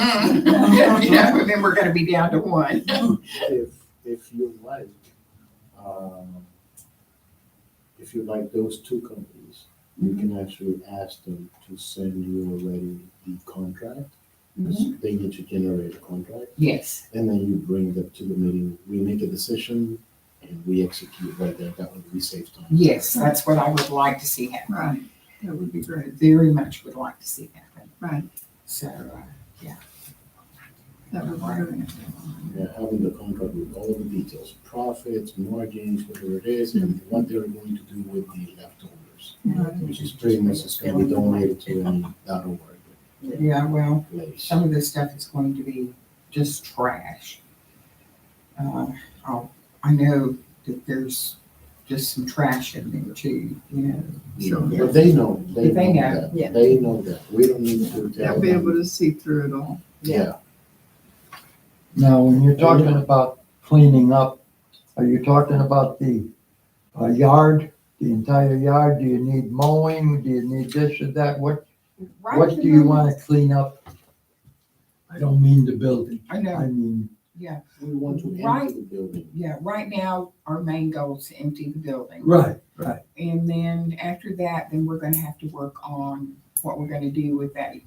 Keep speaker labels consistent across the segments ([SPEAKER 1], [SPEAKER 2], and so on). [SPEAKER 1] you know, then we're gonna be down to one.
[SPEAKER 2] if, if you like, um, if you like those two companies, you can actually ask them to send you already the contract. 'cause They need to generate a contract,
[SPEAKER 1] Yes,
[SPEAKER 2] and then you bring them to the meeting, we make a decision, and we execute right there, that would be safe time.
[SPEAKER 1] yes, that's what I would like to see happen.
[SPEAKER 3] Right, that would be
[SPEAKER 1] I
[SPEAKER 3] great,
[SPEAKER 1] Very much would like to see happen.
[SPEAKER 3] right,
[SPEAKER 1] So, uh, yeah.
[SPEAKER 3] that would be great.
[SPEAKER 2] Yeah, having the contract with all the details, profits, margins, whatever it is, and what they're going to do with the leftovers, which is pretty much is gonna be donated to them, that'll work.
[SPEAKER 1] Yeah, well,
[SPEAKER 2] place.
[SPEAKER 1] some of this stuff is going to be just trash. Uh, I'll- I know that there's just some trash in there too, you know. so-
[SPEAKER 2] But they know, they
[SPEAKER 1] But they know,
[SPEAKER 2] know
[SPEAKER 4] yeah.
[SPEAKER 2] that, they know that, we don't need to tell
[SPEAKER 3] They'll be able
[SPEAKER 2] them.
[SPEAKER 3] to see through it all.
[SPEAKER 2] Yeah,
[SPEAKER 5] Now, when you're talking about cleaning up, are you talking about the uh, yard, the entire yard? Do you need mowing? Do you need this or that? What,
[SPEAKER 1] Right
[SPEAKER 5] what
[SPEAKER 1] at the
[SPEAKER 5] do you
[SPEAKER 1] moment-
[SPEAKER 5] want to clean up? I don't mean the building.
[SPEAKER 1] I know.
[SPEAKER 5] I mean,
[SPEAKER 2] we want to
[SPEAKER 1] Right.
[SPEAKER 2] enter the building.
[SPEAKER 1] Yeah, right now, our main goal is to empty the building.
[SPEAKER 5] right, right.
[SPEAKER 1] And then after that, then we're gonna have to work on what we're gonna do with that yard.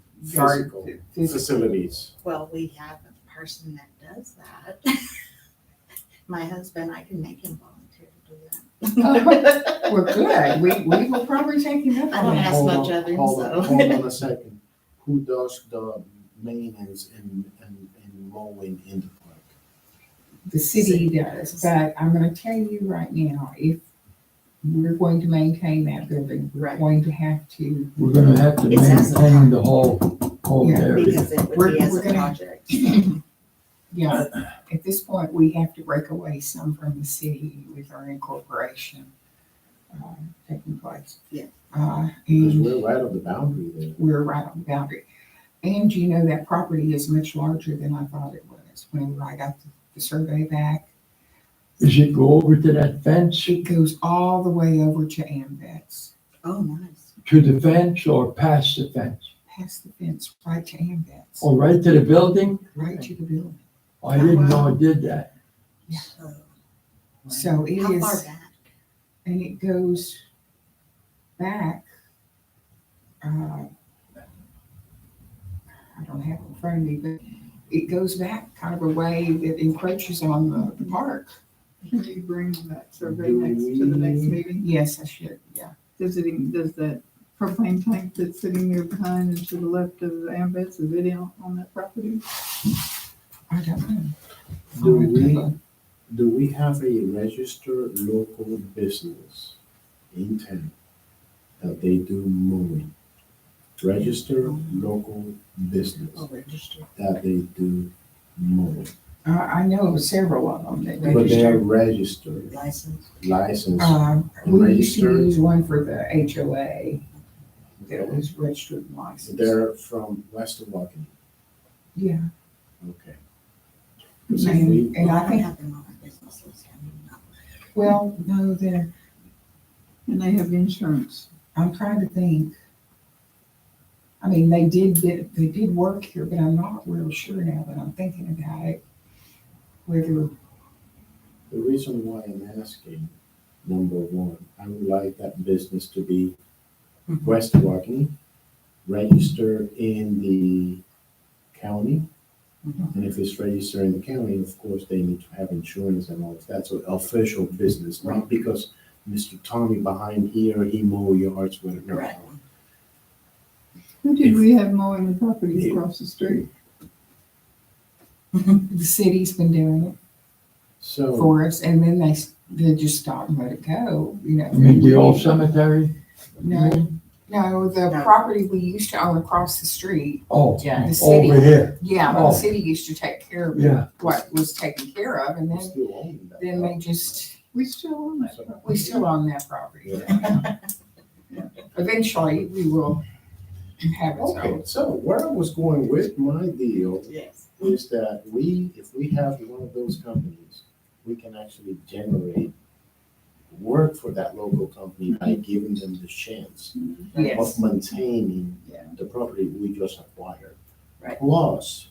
[SPEAKER 2] Physical.
[SPEAKER 1] phys-
[SPEAKER 2] Facilities.
[SPEAKER 4] Well, we have a person that does that. My husband, I can make him volunteer to do that.
[SPEAKER 1] Well, good, we, we will probably take him up
[SPEAKER 4] I don't
[SPEAKER 1] on that.
[SPEAKER 4] ask
[SPEAKER 2] Hold on,
[SPEAKER 4] much of him,
[SPEAKER 2] Hold on,
[SPEAKER 4] so.
[SPEAKER 2] hold on a second. Who does the maintenance and, and, and mowing in the park?
[SPEAKER 1] The city does, but I'm gonna tell you right now, if we're going to maintain that building, we're
[SPEAKER 4] Right.
[SPEAKER 1] going to have to,
[SPEAKER 5] We're gonna have to
[SPEAKER 4] It's as a-
[SPEAKER 5] maintain the whole, whole
[SPEAKER 1] Yeah,
[SPEAKER 5] area.
[SPEAKER 4] Because it would
[SPEAKER 1] We're-
[SPEAKER 4] be as
[SPEAKER 1] we're
[SPEAKER 4] a
[SPEAKER 1] gonna-
[SPEAKER 4] project.
[SPEAKER 1] yeah, at this point, we have to break away some from the city with our incorporation, uh, taking place.
[SPEAKER 4] Yeah.
[SPEAKER 1] Uh,
[SPEAKER 2] Because
[SPEAKER 1] and
[SPEAKER 2] we're right on the boundary there.
[SPEAKER 1] we're right on the boundary. And you know, that property is much larger than I thought it was when I got the- the survey back.
[SPEAKER 5] Does it go over to that fence,
[SPEAKER 1] It goes all the way over to Amvet's.
[SPEAKER 4] Oh, nice.
[SPEAKER 5] to the fence or past the fence?
[SPEAKER 1] past the fence, right to Amvets,
[SPEAKER 5] Or right to the building?
[SPEAKER 1] right to the building.
[SPEAKER 5] I didn't know it did that.
[SPEAKER 4] So,
[SPEAKER 1] So it
[SPEAKER 4] How far
[SPEAKER 1] is,
[SPEAKER 4] back?
[SPEAKER 1] and it goes back. uh, I don't have it in front of me, but it goes back kind of a way that encroaches on the- the park.
[SPEAKER 3] Can you bring that survey next to the next meeting?
[SPEAKER 1] Yes, I should, yeah.
[SPEAKER 3] Does it, does that propane tank that's sitting there behind and to the left of the ambets, is it on, on that property?
[SPEAKER 1] I don't know.
[SPEAKER 2] Do we, do we have a registered local business in town that they do mowing? Registered local business
[SPEAKER 4] Oh, registered.
[SPEAKER 2] that they do mowing,
[SPEAKER 1] I, Uh, I know of several of them that
[SPEAKER 2] but they are
[SPEAKER 1] register.
[SPEAKER 2] registered,
[SPEAKER 4] License.
[SPEAKER 2] licensed.
[SPEAKER 1] Um, we used to
[SPEAKER 2] Registered.
[SPEAKER 1] use one for the HOA that was registered and licensed.
[SPEAKER 2] They're from West of Walkin,
[SPEAKER 1] Yeah.
[SPEAKER 2] okay. 'Cause if
[SPEAKER 1] And,
[SPEAKER 2] we-
[SPEAKER 1] and I
[SPEAKER 4] don't
[SPEAKER 1] think,
[SPEAKER 4] have them on my business list. I mean, no.
[SPEAKER 1] well, no, they're,
[SPEAKER 3] And they have insurance.
[SPEAKER 1] I'm trying to think. I mean, they did, get- they did work here, but I'm not real sure now that I'm thinking about it. Whether,
[SPEAKER 2] The reason why I'm asking, number one, I would like that business to be
[SPEAKER 1] Mm-hmm.
[SPEAKER 4] Mhm.
[SPEAKER 2] West Walkeny, registered in the county.
[SPEAKER 1] Mm-hmm.
[SPEAKER 4] Mhm.
[SPEAKER 2] And if it's registered in the county, of course, they need to have insurance and all of that, so official business, not because Mr. Tommy behind here, he mow yards with, no.
[SPEAKER 4] Right.
[SPEAKER 3] Who did we have mowing the property across the street?
[SPEAKER 1] the city's been doing it
[SPEAKER 2] So,
[SPEAKER 1] for us, and then they, s- they just stopped and let it go, you know.
[SPEAKER 5] I mean, the old cemetery?
[SPEAKER 1] No, no, the
[SPEAKER 4] No.
[SPEAKER 1] property we used to own across the street,
[SPEAKER 5] Oh,
[SPEAKER 1] the
[SPEAKER 5] over
[SPEAKER 1] city,
[SPEAKER 5] here,
[SPEAKER 1] yeah, the
[SPEAKER 5] Oh.
[SPEAKER 1] city used to take care of
[SPEAKER 5] yeah.
[SPEAKER 1] what was taken care of, and
[SPEAKER 2] we
[SPEAKER 1] then,
[SPEAKER 2] still own that.
[SPEAKER 1] then they just
[SPEAKER 3] We still own that property.
[SPEAKER 1] We still own that property. Eventually, we will have it
[SPEAKER 2] Okay,
[SPEAKER 1] sold.
[SPEAKER 2] so where I was going with my deal
[SPEAKER 4] Yes.
[SPEAKER 2] is that we, if we have one of those companies, we can actually generate work for that local company by giving them the chance
[SPEAKER 1] Yes.
[SPEAKER 2] of maintaining
[SPEAKER 3] Yeah.
[SPEAKER 2] the property we just acquired.
[SPEAKER 4] Right.
[SPEAKER 2] Plus,